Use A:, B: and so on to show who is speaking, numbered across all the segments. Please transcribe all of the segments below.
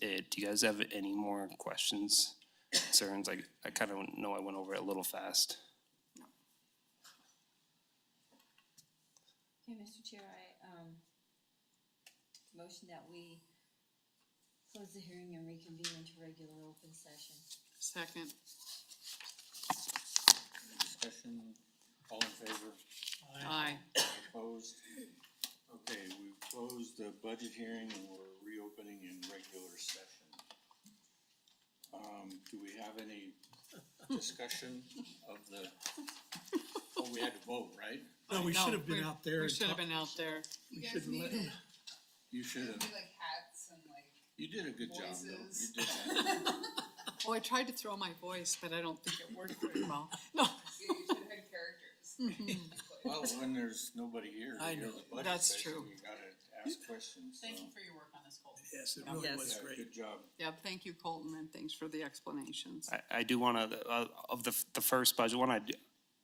A: it. Do you guys have any more questions, concerns? I, I kind of know I went over it a little fast.
B: Okay, Mr. Chair, I, um, motion that we close the hearing and reconvene into regular open session.
C: Second.
D: Discussion, all in favor,
C: Aye.
D: opposed? Okay, we've closed the budget hearing and we're reopening in regular session. Um, do we have any discussion of the, oh, we had to vote, right?
E: No, we
C: No,
E: should have been
C: we-
E: out there.
C: We
E: and
C: should have
E: talk-
C: been out there.
F: You
E: We
F: guys
E: should
F: need
E: let-
F: to
D: You should
F: do
D: have,
F: like hats and like
D: you did a good job though. You
F: Voices.
D: did that.
C: Oh, I tried to throw my voice, but I don't think it worked very well. No,
F: you should have had characters.
D: Well, when there's nobody here to
E: I
D: hear
E: know.
D: the budget
C: That's
D: session,
C: true.
D: you gotta ask questions, so.
F: Thank you for your work on this, Colton.
E: Yes, it really
C: Yes.
E: was
D: Yeah,
E: great.
D: good job.
C: yeah, thank you, Colton, and thanks for the explanations.
A: I, I do want to, uh, of the, the first budget one, I do,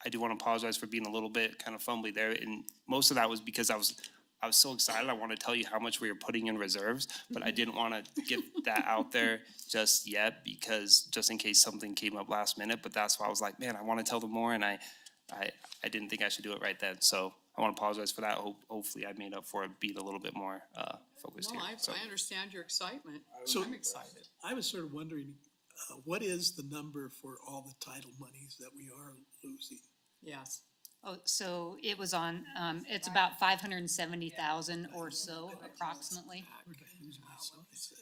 A: I do want to apologize for being a little bit kind of fumbly there. And most of that was because I was, I was so excited. I want to tell you how much we were putting in reserves, but I
C: Mm-hmm.
A: didn't want to get that out there just yet because just in case something came up last minute. But that's why I was like, man, I want to tell them more and I, I, I didn't think I should do it right then. So I want to apologize for that. Ho- Hopefully I made up for it, being a little bit more, uh, focused
C: No,
A: here.
C: I,
A: So-
C: I understand your excitement.
E: So-
C: I'm excited.
E: I was sort of wondering, uh, what is the number for all the title monies that we are losing?
C: Yes.
G: Oh, so it was on, um, it's about five hundred and seventy thousand or so approximately.
E: Where did I lose my slides? at?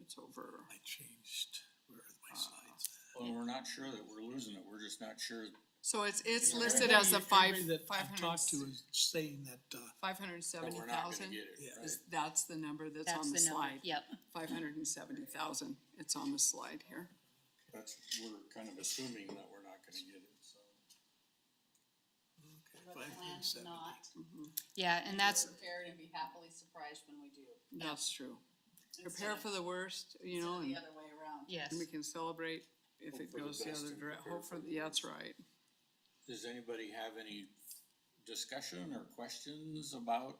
C: It's over.
E: I changed, where are
C: Uh,
E: my slides?
D: Well, we're not sure that we're losing it. We're just not sure
C: So it's, it's
D: Yeah.
C: listed as a five,
E: Everybody that
C: five
E: I've
C: hundred,
E: talked to is saying that, uh,
C: five hundred and
D: that
C: seventy
D: we're not gonna
C: thousand.
D: get it,
E: Yeah.
D: right?
C: Is, that's the number that's
G: That's
C: on the
G: the number,
C: slide.
G: yep.
C: Five hundred and seventy thousand. It's on the slide here.
D: That's, we're kind of assuming that we're not gonna get it, so.
E: five hundred and seventy.
G: Yeah, and that's,
F: Prepared and be happily surprised when we do.
C: That's true. Prepare for the worst, you
F: Instead
C: know,
F: of
C: and.
F: the other way around.
G: yes.
C: And we can celebrate if
D: Hope
C: it
D: for the
C: goes the
D: best
C: other
D: and
C: direction.
D: prepare
C: hope
D: for
C: for,
D: the
C: yeah, that's right.
D: Does anybody have any discussion or questions about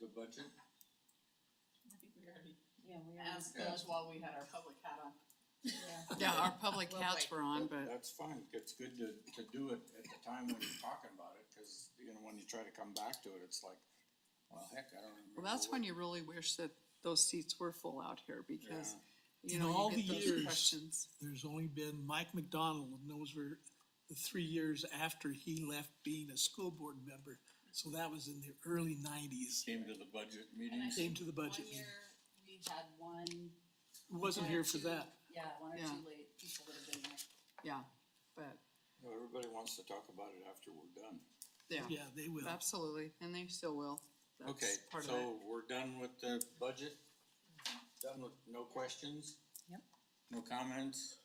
D: the budget?
F: I think we already
B: Yeah, we are,
F: asked those while we had our public hat on.
B: yeah.
C: Yeah, our public
F: Well, like-
C: hats were on, but
D: That's fine. It's good to, to do it at the time when you're talking about it, cause you know, when you try to come back to it, it's like, well, heck, I don't remember.
C: well, that's
D: what-
C: when you really wish that those seats were full out here because, you
E: In
C: know,
E: all
C: you
E: the
C: get those
E: years-
C: questions.
E: There's only been Mike McDonald, and those were the three years after he left being a school board member. So that was in the early nineties,
D: Came to the budget
F: And I
D: meetings.
E: came
F: think
E: to the
F: one
E: budget. meeting.
F: year, we had one.
E: Wasn't
F: one or
E: here for
F: two-
E: that.
F: Yeah, one or
C: Yeah.
F: two late people that have been there.
C: Yeah, but,
D: No, Everybody wants to talk about it after we're done.
C: yeah,
E: Yeah, they will.
C: absolutely. And they still will.
D: Okay,
C: That's part of it.
D: so we're done with the budget? Done with, no questions?
G: Yep.
D: No comments?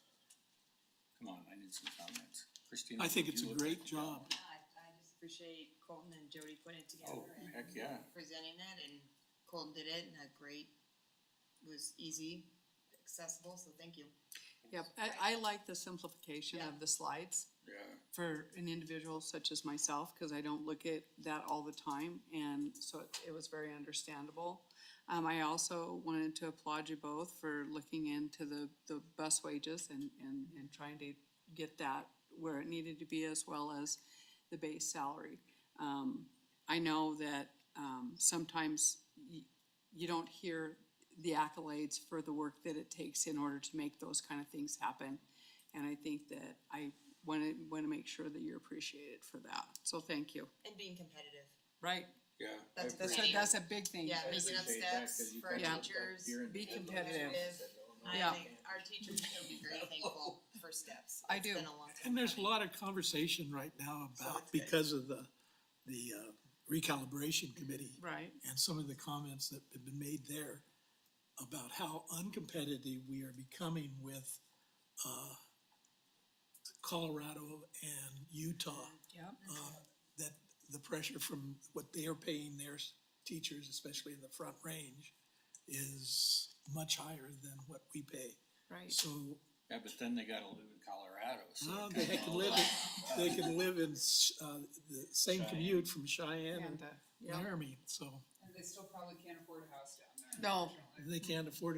D: Come on, I need some comments. Christina?
E: I think
D: would
E: it's a
D: you look at
E: great
D: the
E: job.
D: comments?
H: I, I just appreciate Colton and Jody putting it
D: Oh,
H: together and
D: heck, yeah.
H: presenting it, and Colton did it, and a great, was easy, accessible, so thank you.
C: Yep, I, I like the simplification
H: Yeah.
C: of the slides.
D: Yeah,
C: for an individual such as myself, because I don't look at that all the time, and so it- it was very understandable. Um, I also wanted to applaud you both for looking into the, the bus wages and, and, and trying to get that where it needed to be as well as the base salary. Um, I know that, um, sometimes y- you don't hear the accolades for the work that it takes in order to make those kind of things happen. And I think that I want to, want to make sure that you're appreciated for that. So thank you.
H: And being competitive.
C: Right.
D: yeah. I
C: That's,
H: That's-
C: a-
D: appreciate-
C: that's a big thing.
H: Yeah,
D: I
H: making up
D: appreciate that,
H: steps
D: 'cause you
H: for our
D: guys look like
H: teachers.
D: you're in
C: Be
D: the middle of
C: competitive.
D: it.
H: I
C: Yeah.
H: think our teachers should be very thankful for steps.
C: I
H: It's
C: do.
H: been a long time
E: And there's a
H: coming.
E: lot of conversation right now about, because of the, the uh, recalibration committee.
C: Right.
E: And some of the comments that have been made there about how uncompetitive we are becoming with uh, Colorado and Utah.
C: Yep.
E: uh, That the pressure from what they are paying their s- teachers, especially in the front range, is much higher than what we pay.
C: Right.
E: So
D: Yeah, but then they gotta live in Colorado, so.
E: Well,
D: it
E: they
D: kinda
E: can
D: all-
E: live, in- they can live in, sh- uh, the same commute from Cheyenne
C: And,
E: and
C: uh, yep.
E: Laramie, so
F: And they still probably can't afford a house down there.
C: No.
F: unfortunately.
E: they can't afford